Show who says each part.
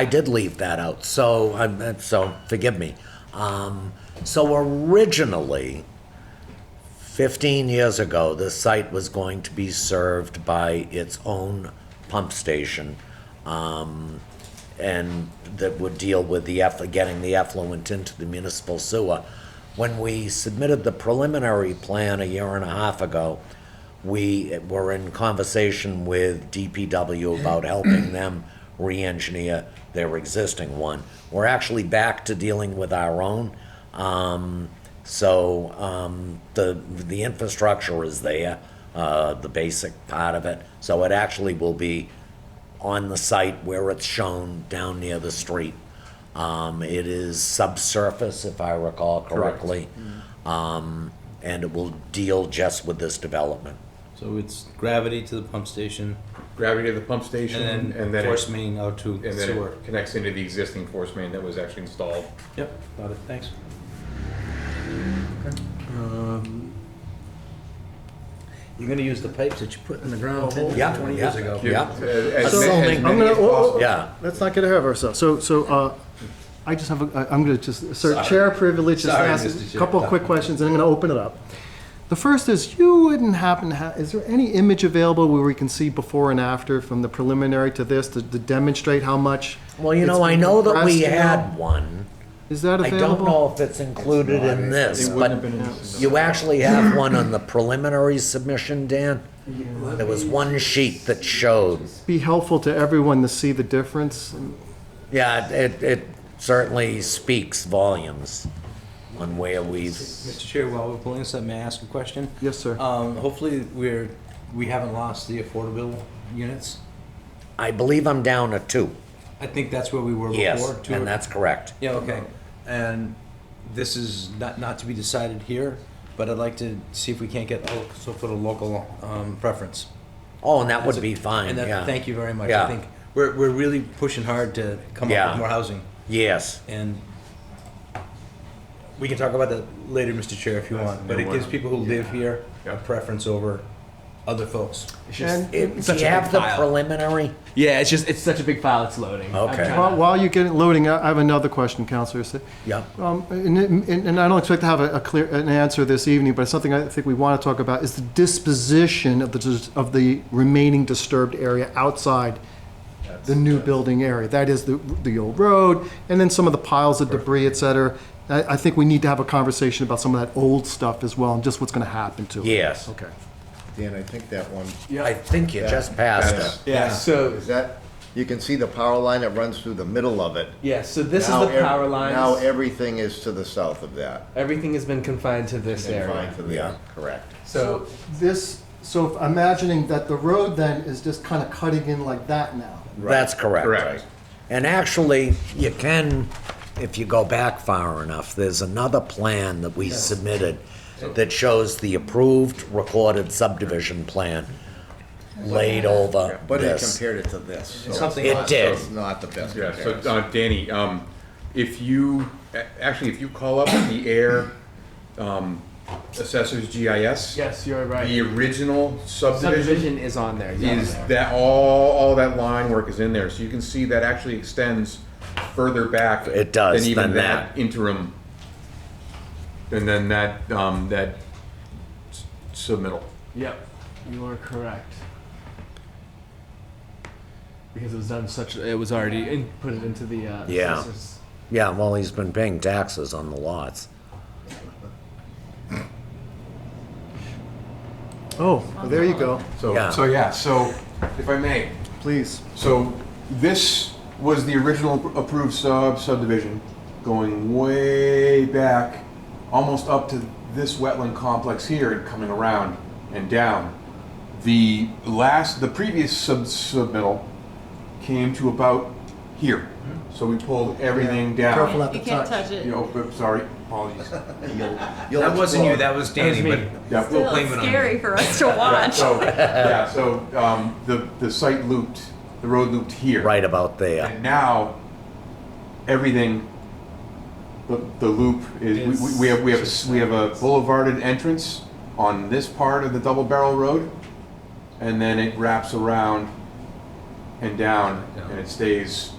Speaker 1: I did leave that out, so, I'm- so forgive me. Um, So originally, 15 years ago, this site was going to be served by its own pump station, um, and that would deal with the, eff- getting the effluent into the municipal sewer. When we submitted the preliminary plan a year and a half ago, we were in conversation with DPW about helping them re-engineer their existing one. We're actually back to dealing with our own. Um, so um, the the infrastructure is there, uh, the basic part of it. So it actually will be on the site where it's shown down near the street. Um, it is subsurface, if I recall correctly, um, and it will deal just with this development.
Speaker 2: So it's gravity to the pump station
Speaker 3: gravity of the pump station,
Speaker 2: and then
Speaker 3: it-
Speaker 2: force main out to
Speaker 3: and then
Speaker 2: sewer.
Speaker 3: it connects into the existing force main that was actually installed.
Speaker 2: Yep, got it, thanks.
Speaker 4: Um, You're gonna use the pipes that you put in the
Speaker 2: Oh,
Speaker 4: ground 10,
Speaker 1: Yeah,
Speaker 4: 20 years
Speaker 1: yeah.
Speaker 4: ago.
Speaker 1: Yeah.
Speaker 3: Uh, As,
Speaker 1: So-
Speaker 3: ma- as
Speaker 1: I'm
Speaker 3: many as
Speaker 5: gonna- whoa, whoa,
Speaker 3: possible.
Speaker 5: whoa.
Speaker 1: Yeah,
Speaker 5: Let's not get ahead of ourselves. So, so, uh, I just have, a- I- I'm gonna just, assert chair privilege, just
Speaker 2: Sorry,
Speaker 5: ask
Speaker 2: Mr.
Speaker 5: a
Speaker 2: Chair.
Speaker 5: couple of quick questions, and I'm gonna open it up. The first is, you wouldn't happen to have, is there any image available where we can see before and after from the preliminary to this to to demonstrate how much?
Speaker 1: well, you know,
Speaker 5: it's
Speaker 1: I know that we
Speaker 5: compressed now?
Speaker 1: had one.
Speaker 5: Is that
Speaker 1: I don't
Speaker 5: available?
Speaker 1: know if it's included in this, but you actually have one on the preliminary submission, Dan? There was one sheet that showed,
Speaker 5: Be helpful to everyone to see the difference.
Speaker 1: yeah, it, it certainly speaks volumes on where we've,
Speaker 2: Mr. Chair, while we're pulling this up, may I ask a question?
Speaker 5: Yes, sir.
Speaker 2: Um, hopefully we're, we haven't lost the affordable units.
Speaker 1: I believe I'm down to two,
Speaker 2: I think that's where we were before.
Speaker 1: yes,
Speaker 2: two or-
Speaker 1: and that's correct.
Speaker 2: Yeah, okay. Um, And this is not, not to be decided here, but I'd like to see if we can't get, oh, so for the local, um, preference.
Speaker 1: Oh, and that would be fine,
Speaker 2: And
Speaker 1: yeah.
Speaker 2: that, thank you very much.
Speaker 1: Yeah.
Speaker 2: I think we're, we're really pushing hard to come up
Speaker 1: Yeah.
Speaker 2: with more housing.
Speaker 1: Yes,
Speaker 2: And we can talk about that later, Mr. Chair, if you want, but it gives people who live here a preference over other folks.
Speaker 5: And
Speaker 1: It- do
Speaker 6: such
Speaker 1: you
Speaker 6: a
Speaker 1: have
Speaker 6: big
Speaker 1: the
Speaker 6: pile.
Speaker 1: preliminary?
Speaker 6: Yeah, it's just it's such a big file. It's loading. I'm
Speaker 1: Okay.
Speaker 6: trying
Speaker 5: while,
Speaker 6: to-
Speaker 5: while you're getting loading, I I have another question, Counselor. So-
Speaker 1: Yep.
Speaker 5: Um, And, and- and I don't expect to have a a clear, an answer this evening, but something I think we want to talk about is the disposition of the, dis- of the remaining disturbed area outside the new building area. That is the, the old road, and then some of the piles of debris, et cetera. I, I think we need to have a conversation about some of that old stuff as well, and just what's going to happen to it.
Speaker 1: Yes.
Speaker 5: Okay.
Speaker 7: Dan, I think that one,
Speaker 1: I think you just passed
Speaker 7: Yes.
Speaker 1: it.
Speaker 6: Yeah. So
Speaker 7: is that, you can see the power line that runs through the middle of it.
Speaker 6: yeah. So this
Speaker 7: Now
Speaker 6: is the
Speaker 7: ev-
Speaker 6: power lines.
Speaker 7: Now everything is to the south of that.
Speaker 6: Everything has been confined to this
Speaker 7: Confined
Speaker 6: area.
Speaker 7: to the-
Speaker 1: Yeah.
Speaker 7: Correct.
Speaker 6: So
Speaker 5: This, so if- imagining that the road then is just kind of cutting in like that now.
Speaker 1: That's correct.
Speaker 3: Correct.
Speaker 1: And actually, you can, if you go back far enough, there's another plan that we submitted that shows the approved recorded subdivision plan laid over
Speaker 7: But it
Speaker 1: this.
Speaker 7: compared it to this. so
Speaker 2: something
Speaker 7: it's
Speaker 1: It
Speaker 7: not-
Speaker 1: did.
Speaker 7: so It's not the best
Speaker 3: Yeah, so
Speaker 7: comparison.
Speaker 3: uh, Danny, um, if you, a- actually, if you call up the air, um, assessor's GIS.
Speaker 6: yes, you're
Speaker 3: The
Speaker 6: right.
Speaker 3: original subdivision
Speaker 6: Subdivision is on there. yeah.
Speaker 3: is that, all, all that line work is in there, so you can see that actually extends further back.
Speaker 1: It does,
Speaker 3: Than even
Speaker 1: than that.
Speaker 3: that interim, and then that, um, that s- submittal.
Speaker 6: Yep, you are correct. Because it was done such, it was already inputted into the. Uh,
Speaker 1: Yeah.
Speaker 6: assessor's-
Speaker 1: Yeah, well, he's been paying taxes on the lots.
Speaker 5: Oh, there you go.
Speaker 1: Yeah.
Speaker 3: So, so yeah, so if I may,
Speaker 5: Please.
Speaker 3: so this was the original approved sub subdivision going way back, almost up to this wetland complex here and coming around and down. The last, the previous sub submittal came to about here. So we pulled everything down.
Speaker 5: Careful not to
Speaker 8: You
Speaker 5: touch.
Speaker 8: can't touch it.
Speaker 3: You know, oops, sorry, apologies.
Speaker 7: You'll
Speaker 2: That wasn't you,
Speaker 7: explode.
Speaker 2: that was Danny,
Speaker 6: me.
Speaker 2: but
Speaker 3: Yeah,
Speaker 2: we'll
Speaker 8: Still,
Speaker 2: blame
Speaker 8: it's
Speaker 2: it on you.
Speaker 8: scary for us to watch.
Speaker 3: So, yeah, so um, the, the site looped, the road looped here.
Speaker 1: Right about there.
Speaker 3: And now, everything, the, the loop is, we, we- we have, we have, a s- we have a boulevarded entrance on this part of the double barrel road, and then it wraps around and down, and it stays